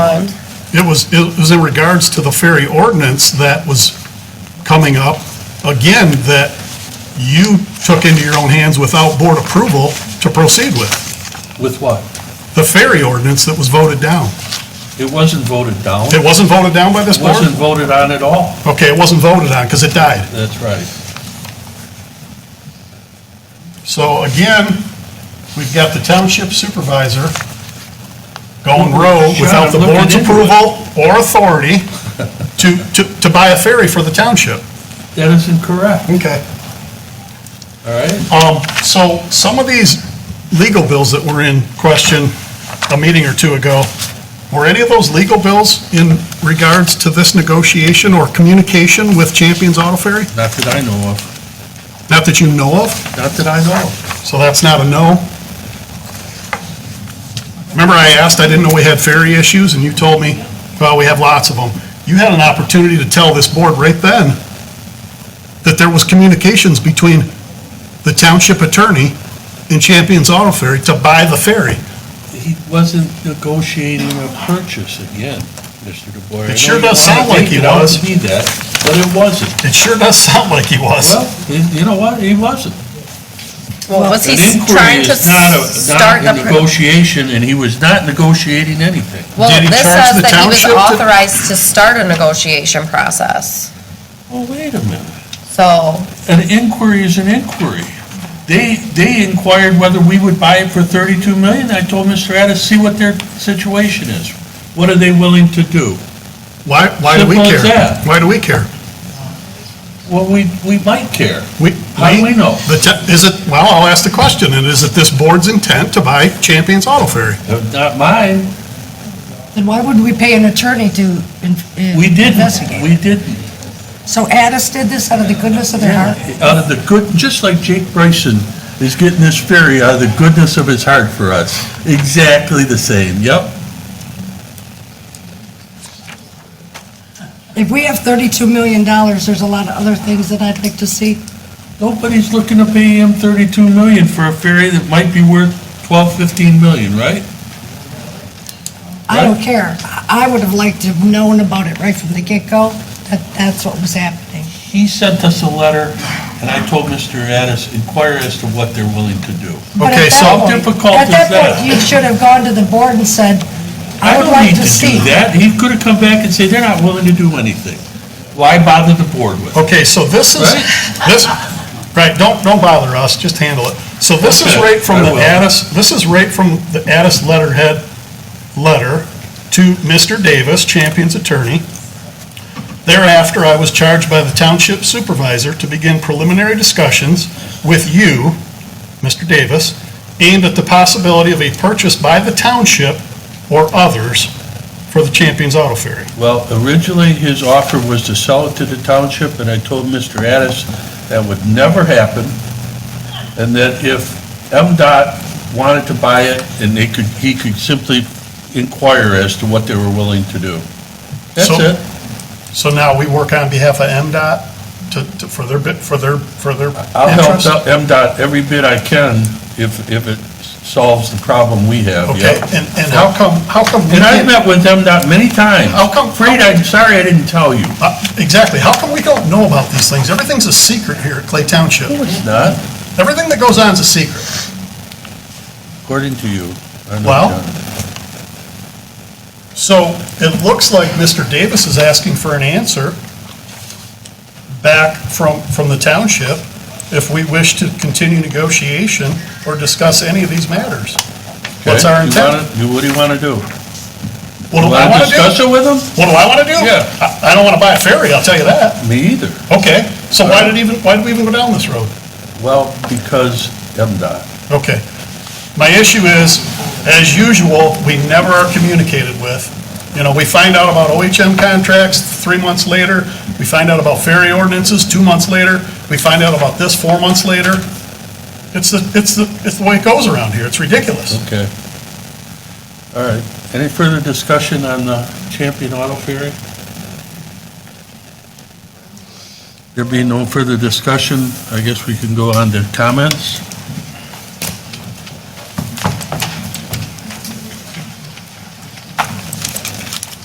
It was, it was in regards to the ferry ordinance that was coming up, again, that you took into your own hands without board approval to proceed with. With what? The ferry ordinance that was voted down. It wasn't voted down. It wasn't voted down by this board? Wasn't voted on at all. Okay, it wasn't voted on because it died. That's right. So again, we've got the township supervisor going rogue without the Sean, I'm board's looking into it. approval or authority to, to, to buy a ferry for the township. That is incorrect, Okay. all right? Um, so some of these legal bills that were in question a meeting or two ago, were any of those legal bills in regards to this negotiation or communication with Champions Auto Ferry? Not that I know of. Not that you know of, Not that I know of. so that's not a no. Remember I asked, I didn't know we had ferry issues, and you told me, well, we have lots of them. You had an opportunity to tell this board right then that there was communications between the township attorney and Champions Auto Ferry to buy the ferry. He wasn't negotiating a purchase again, Mr. DeBoer. I It know sure you does wanna sound like make he it out was. to be that, but it wasn't. It sure does sound like he was. Well, he- you know what? He wasn't. Well, was he An inquiry trying to is not a- start the, Not a pro- negotiation, and he was not negotiating anything. well, Did he this charge says the that he was township to- authorized to start a negotiation process. Well, wait a minute. So, An inquiry is an inquiry. They, they inquired whether we would buy it for 32 million. I told Mr. Addis, see what their situation is. What are they willing to do? Why, why do we Simple as care? that. Why do we care? Well, we, we might care. We, How do we know? The, te- is it, well, I'll ask the question, and is it this board's intent to buy Champions Auto Ferry? Uh, Not mine. Then why wouldn't we pay an attorney to in- in- We didn't. investigate? We didn't. So Addis did this out of the goodness of their heart? Out of the good, just like Jake Bryson is getting this ferry out of the goodness of his heart for us. Exactly the same. Yep. If we have $32 million, there's a lot of other things that I'd like to see. Nobody's looking to pay him 32 million for a ferry that might be worth 12, 15 million, right? I don't care. I I would have liked to have known about it right from the get-go, that that's what was happening. He sent us a letter, and I told Mr. Addis, inquire as to what they're willing to do. But at Okay, that so- point- How difficult At is that that? point, you should have gone to the board and said, I would don't like need to see. do that. He could have come back and said, they're not willing to do anything. Why bother the board with it? Okay, so this is, this, right, don't, don't bother us, just handle it. So this is Okay, right from I the will. Addis, this is right from the Addis letterhead letter to Mr. Davis, Champion's attorney. Thereafter, I was charged by the township supervisor to begin preliminary discussions with you, Mr. Davis, aimed at the possibility of a purchase by the township or others for the Champions Auto Ferry. Well, originally, his offer was to sell it to the township, and I told Mr. Addis that would never happen, and that if MDOT wanted to buy it, and they could, he could simply inquire as to what they were willing to do. That's So- it. So now we work on behalf of MDOT to, to, for their bit, for their, for their I'll help interest? out MDOT every bit I can if, if it solves the problem we have, Okay, yeah. and, and how come, how come? we And can't- I've met with MDOT many times. How come- Afraid, I'm sorry I didn't tell you. uh, Exactly, how come we don't know about these things? Everything's a secret here at Clay Township. It's not, Everything that goes on is a secret. according to you. I'm not Well, done. So it looks like Mr. Davis is asking for an answer back from, from the township if we wish to continue negotiation or discuss any of these matters. What's Okay, our you intent? wanna- you- What do you want to do? What do You I wanna want to do? Discuss it with them? What do I want to do? Yeah. I- I don't want to buy a ferry, I'll tell you that. Me either. Okay, so why did even, why did we even go down this road? Well, because MDOT. Okay. My issue is, as usual, we never are communicated with. You know, we find out about OHM contracts three months later, we find out about ferry ordinances two months later, we find out about this four months later. It's the, it's the, it's the way it goes around here, it's ridiculous. Okay. All right. Any further discussion on the Champion Auto Ferry? There being no further discussion, I guess we can go on to comments.